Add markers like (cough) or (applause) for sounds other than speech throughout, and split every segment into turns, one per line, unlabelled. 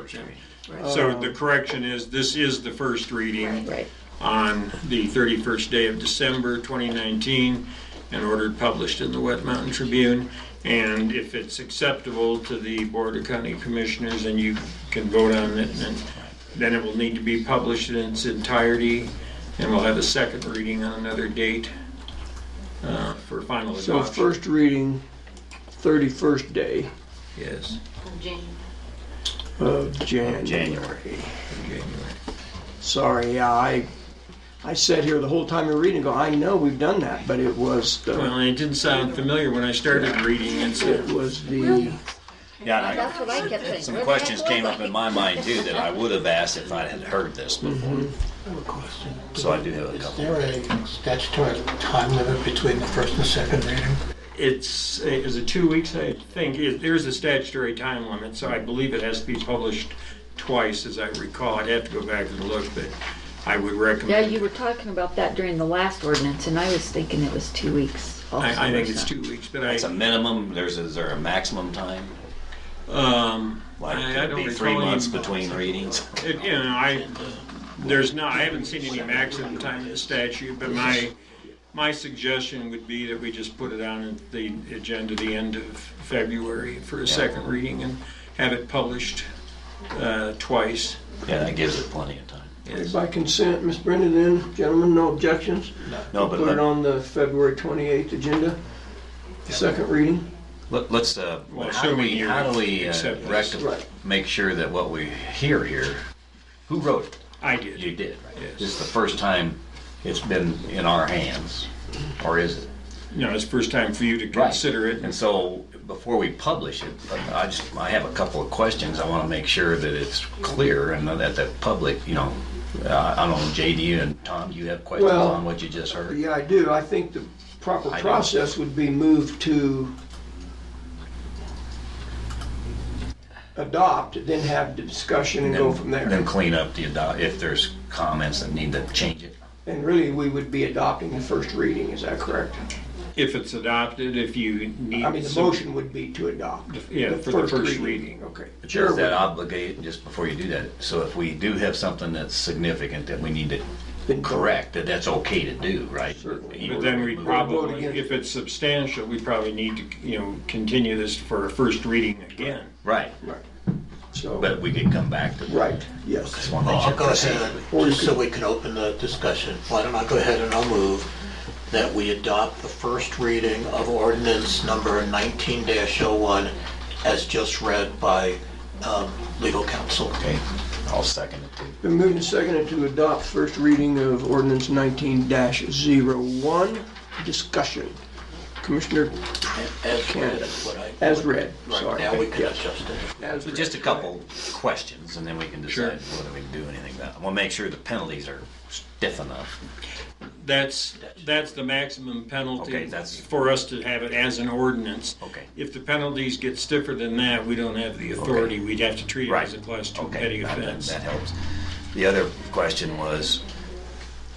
version.
Right. Um,
So the correction is, this is the first reading
Right.
on the 31st day of December 2019 and ordered published in the Wet Mountain Tribune. And if it's acceptable to the Board of County Commissioners, then you can vote on it. And then it will need to be published in its entirety and we'll have a second reading on another date uh, for final
So
adoption.
first reading, 31st day
Yes,
of Jan.
January.
in January.
Sorry, yeah, I, I sat here the whole time you're reading, go, I know we've done that, but it was the,
Well, it didn't sound familiar when I started reading it, so
it was the,
Yeah, and I,
That's what I kept saying.
some
Where the
questions
heck was
came up in my mind too that I would have asked if I had heard this before.
I have a question.
So I do have a
Is
couple.
there a statutory time limit between the first and the second reading?
it's, is it two weeks, I think? It- There's a statutory time limit, so I believe it has to be published twice, as I recall. I'd have to go back and look, but I would
Yeah,
recommend,
you were talking about that during the last ordinance, and I was thinking it was two weeks. also
I, I think
or
it's two
something.
weeks, but I,
It's a minimum, there's, is there a maximum time?
um,
Like,
I- I
could it
don't
be
recall
three
any-
months between readings? (laughs)
it- you know, I, there's not, I haven't seen any maximum time in the statute, but my, my suggestion would be that we just put it on at the agenda the end of February for a second reading and have it published uh, twice.
Yeah, that gives it plenty of time.
by consent, Miss Brenda then, gentlemen, no objections?
No, but
Put it
let,
on the February 28th agenda, second reading.
let- let's, uh,
Well,
how do
assuming
we,
you
how do we uh,
accept this.
rectify,
Right.
make sure that what we hear here, who wrote it?
I did.
You did, right?
Yes.
This is the first time it's been in our hands, or is it?
No, it's the first time for you to consider it.
And so, before we publish it, I just, I have a couple of questions. I want to make sure that it's clear and that the public, you know, uh, I don't know, JD and Tom, do you have questions
Well,
on what you just heard?
Yeah, I do, I think the proper
I do.
process would be move to adopt, then have discussion and go from there.
Then clean up the, ado- if there's comments that need to change it.
And really, we would be adopting the first reading, is that correct?
If it's adopted, if you need.
I mean, the
some-
motion would be to adopt.
Yeah, for the first reading.
Okay.
But
Chair
does that
would-
obligate, just before you do that, so if we do have something that's significant that we need to
Then-
correct, that that's okay to do, right?
Certainly.
But then we
Vote
probably,
again.
if it's substantial, we probably need to, you know, continue this for a first reading again.
Right,
Right. So,
but we could come back to that.
right, yes.
Well,
I'll go ahead, just so we can open the discussion, why don't I go ahead and I'll move that we adopt the first reading of ordinance number 19-01 as just read by um, legal counsel.
Okay, I'll second it too.
Been moved and seconded to adopt first reading of ordinance 19-01. Discussion. Commissioner,
As read is what I...
as read,
Right,
sorry.
now we can
Yes,
adjust it.
as
So
read.
just a couple questions, and then we can
Sure.
decide whether we can do anything about it. We'll make sure the penalties are stiff enough.
That's, that's the maximum penalty.
Okay, that's-
For us to have it as an ordinance.
Okay.
If the penalties get stiffer than that, we don't have the authority. We'd have to treat it as a class two
Okay,
petty
that- that-
offense.
That helps. The other question was,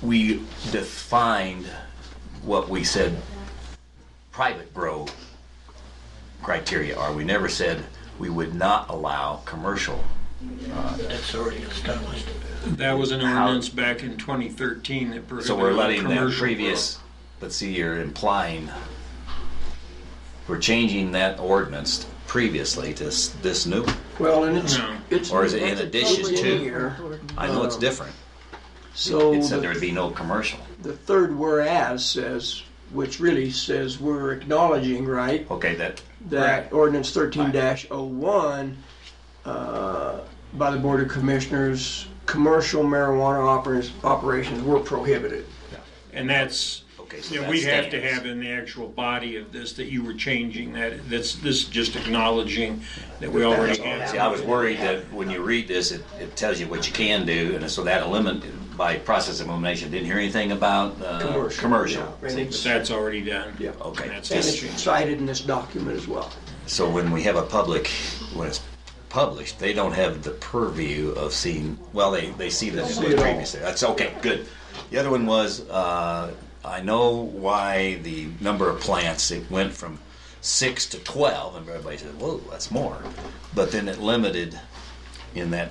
we defined what we said private grow criteria are. We never said we would not allow commercial.
That's already established.
That was an ordinance back in 2013 that prohibited.
So we're letting that
commercial
previous, let's see, you're implying, we're changing that ordinance previously to s- this new
Well, and it's,
No.
it's.
Or is it in addition
it's
to?
in here.
I know it's different.
So
It said there
Uh, the
would be no commercial.
the third whereas says, which really says we're acknowledging, right?
Okay, that,
that ordinance thirteen 01 uh, by the Board of Commissioners, commercial marijuana operas- operations were prohibited.
And that's,
Okay, so
you know,
that
we have to
stands.
have in the actual body of this that you were changing that, that's, this is just acknowledging that we already
see, I
have.
was worried that when you read this, it, it tells you what you can do, and so that elimin, by process of elimination, didn't hear anything about, uh,
Commercial,
commercial. Oh,
yeah, and
But
it's-
that's already done.
Yeah.
Okay.
And that's
And
just
it's
changed.
cited in this document as well.
So when we have a public, when it's published, they don't have the purview of seeing, well, they, they see that
See
it
it
was
all.
previously. That's okay, good. The other one was, uh, I know why the number of plants, it went from six to 12, and everybody said, whoa, that's more. But then it limited in that